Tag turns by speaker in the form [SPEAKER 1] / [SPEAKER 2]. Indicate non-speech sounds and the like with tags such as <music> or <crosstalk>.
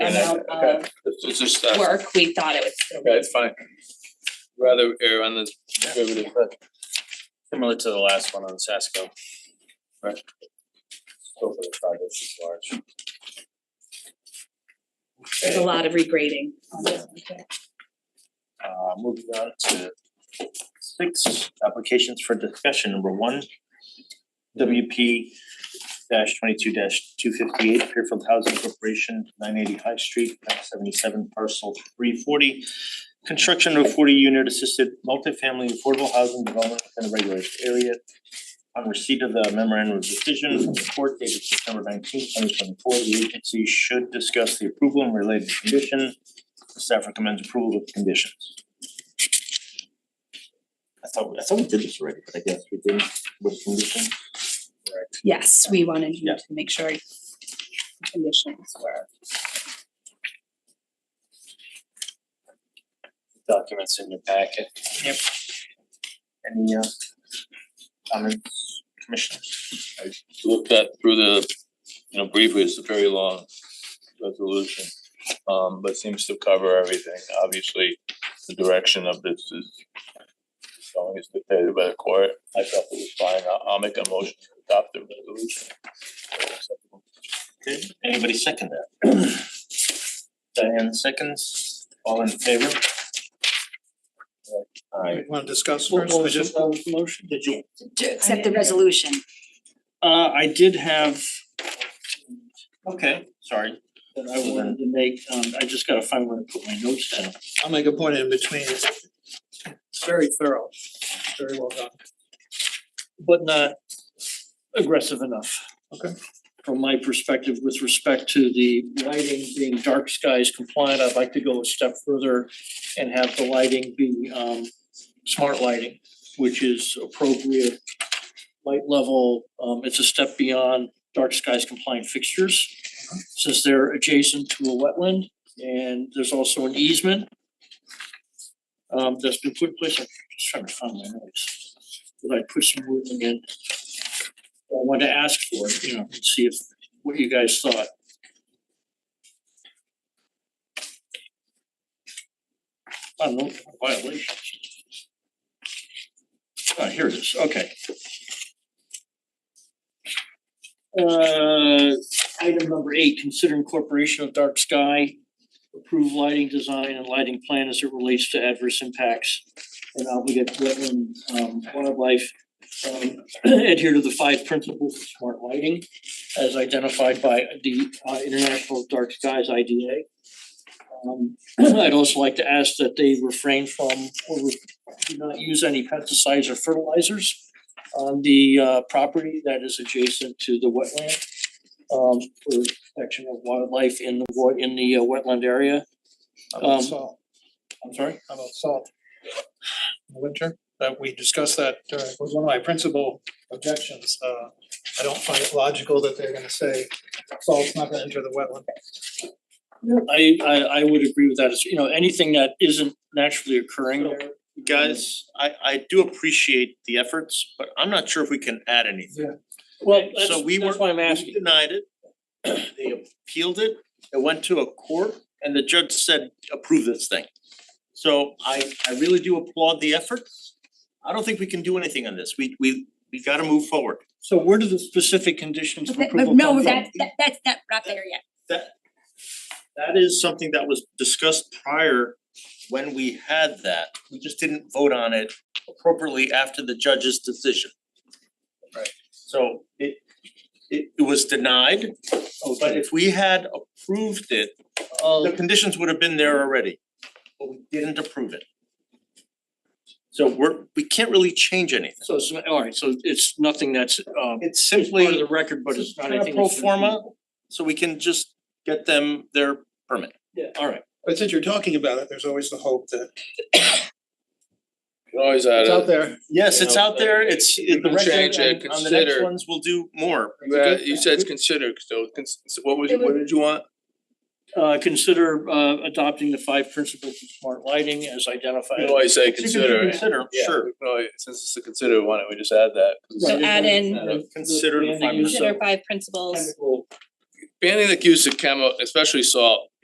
[SPEAKER 1] And I-
[SPEAKER 2] amount
[SPEAKER 1] okay.
[SPEAKER 2] of
[SPEAKER 1] It's just that, okay,
[SPEAKER 2] work we thought it would still.
[SPEAKER 1] it's fine. Rather err on the conservative side.
[SPEAKER 3] Similar to the last one on Sasco.
[SPEAKER 1] Right.
[SPEAKER 3] Scope of the project is large.
[SPEAKER 2] There's a lot of regrading. on this one, too.
[SPEAKER 3] Uh, moving on to six applications for discussion, number one. WP twenty-two two fifty-eight Fairfield Housing Corporation, nine eighty High Street, map seventy-seven parcel three forty. Construction of forty unit assisted multifamily affordable housing development in a regulated area. On receipt of the memorandum of decision from the court dated September nineteenth, twenty twenty-four, the agency should discuss the approval and related condition. Staff recommends approval with conditions. I thought, I thought we did this already, but I guess we didn't with conditions.
[SPEAKER 2] Yes, we wanted you
[SPEAKER 3] Yeah.
[SPEAKER 2] to make sure conditions were.
[SPEAKER 3] documents in your packet. Yep. Any uh comments, commissioners?
[SPEAKER 1] Look that through the, you know, briefly, it's a very long resolution. Um, but seems to cover everything. Obviously, the direction of this is going as dictated by the court. I felt it was fine. I'll, I'll make a motion to adopt the resolution.
[SPEAKER 3] Okay, anybody second that? <clears throat> Diane seconds, all in favor? Alright,
[SPEAKER 4] Want to discuss first, I just,
[SPEAKER 5] uh, motion?
[SPEAKER 3] did you,
[SPEAKER 6] To accept the resolution.
[SPEAKER 5] Uh, I did have,
[SPEAKER 3] okay, sorry,
[SPEAKER 5] that I wanted to make, um, I just gotta find where to put my notes down.
[SPEAKER 4] I'll make a point in between. It's Very thorough, very well done.
[SPEAKER 5] But not aggressive enough.
[SPEAKER 4] Okay.
[SPEAKER 5] From my perspective, with respect to the lighting being dark skies compliant, I'd like to go a step further and have the lighting be, um, smart lighting, which is appropriate light level, um, it's a step beyond dark skies compliant fixtures. Since they're adjacent to a wetland and there's also an easement. Um, that's been put in place, I'm just trying to find my notes, but I put some movement in. I wanted to ask for it, you know, and see if, what you guys thought. I don't know, violations. Ah, here it is, okay. Uh, item number eight, consider incorporation of dark sky. Approve lighting design and lighting plan as it relates to adverse impacts and obligate wetland um wildlife. Um <clears throat> adhere to the five principles of smart lighting as identified by the uh International Dark Skies IDA. Um <clears throat> I'd also like to ask that they refrain from or do not use any pesticides or fertilizers on the uh property that is adjacent to the wetland um for protection of wildlife in the wa- in the uh, wetland area.
[SPEAKER 4] How about
[SPEAKER 5] Um,
[SPEAKER 4] salt,
[SPEAKER 5] I'm sorry?
[SPEAKER 4] how about salt? In the Winter, that we discussed that during, was one of my principal objections, uh, I don't find it logical that they're gonna say salt's not gonna enter the wetland.
[SPEAKER 5] I I I would agree with that, It's, you know, anything that isn't naturally occurring there.
[SPEAKER 3] guys, I I do appreciate the efforts, but I'm not sure if we can add anything.
[SPEAKER 5] Well,
[SPEAKER 3] Okay, so
[SPEAKER 5] that's
[SPEAKER 3] we
[SPEAKER 5] that's
[SPEAKER 3] were-
[SPEAKER 5] why I'm
[SPEAKER 3] We
[SPEAKER 5] asking.
[SPEAKER 3] Denied it, <clears throat> they appealed it, it went to a court, and the judge said, approve this thing. So I I really do applaud the efforts. I don't think we can do anything on this, we we we gotta move forward.
[SPEAKER 5] So where do the specific conditions of
[SPEAKER 6] But that- but
[SPEAKER 5] approval
[SPEAKER 6] no,
[SPEAKER 5] come from?
[SPEAKER 6] that that that's not not there yet.
[SPEAKER 3] That is something that was discussed prior when we had that, we just didn't vote on it appropriately after the judge's decision.
[SPEAKER 1] Right.
[SPEAKER 3] So it it it was denied, but if we had approved it, the
[SPEAKER 5] Um,
[SPEAKER 3] conditions would have been there already, but we didn't approve it. So we're, we can't really change anything.
[SPEAKER 5] so it's, alright, so it's nothing that's um
[SPEAKER 3] It's
[SPEAKER 5] it's
[SPEAKER 3] simply
[SPEAKER 5] part of the record, but it's not
[SPEAKER 3] kinda
[SPEAKER 5] anything.
[SPEAKER 3] pro
[SPEAKER 5] that's-
[SPEAKER 3] forma, so we can just get them their permit.
[SPEAKER 5] Yeah, alright,
[SPEAKER 4] But since you're talking about it, there's always the hope that
[SPEAKER 1] You can Always add
[SPEAKER 4] it's
[SPEAKER 1] a-
[SPEAKER 4] out there,
[SPEAKER 3] Yes,
[SPEAKER 1] You
[SPEAKER 3] it's
[SPEAKER 1] know,
[SPEAKER 3] out there, it's it the
[SPEAKER 1] can
[SPEAKER 3] record
[SPEAKER 1] change it,
[SPEAKER 3] and on the next
[SPEAKER 1] consider-
[SPEAKER 3] ones, we'll do more.
[SPEAKER 1] You had- you said consider, so cons- so what was,
[SPEAKER 2] It would-
[SPEAKER 1] what did you want?
[SPEAKER 5] uh consider uh adopting the five principles of smart lighting as
[SPEAKER 1] You
[SPEAKER 5] identified.
[SPEAKER 1] can always say
[SPEAKER 3] You can do
[SPEAKER 1] consider.
[SPEAKER 3] Consider,
[SPEAKER 1] Yeah,
[SPEAKER 3] sure.
[SPEAKER 1] we can always- since it's a consider, why don't we just add that? 'Cause
[SPEAKER 2] So
[SPEAKER 5] Right.
[SPEAKER 2] add in-
[SPEAKER 1] Add up.
[SPEAKER 3] Consider the
[SPEAKER 5] And
[SPEAKER 3] five minutes.
[SPEAKER 5] use of
[SPEAKER 2] Consider five principles.
[SPEAKER 5] chemical
[SPEAKER 1] Banning the use of chemo, especially salt,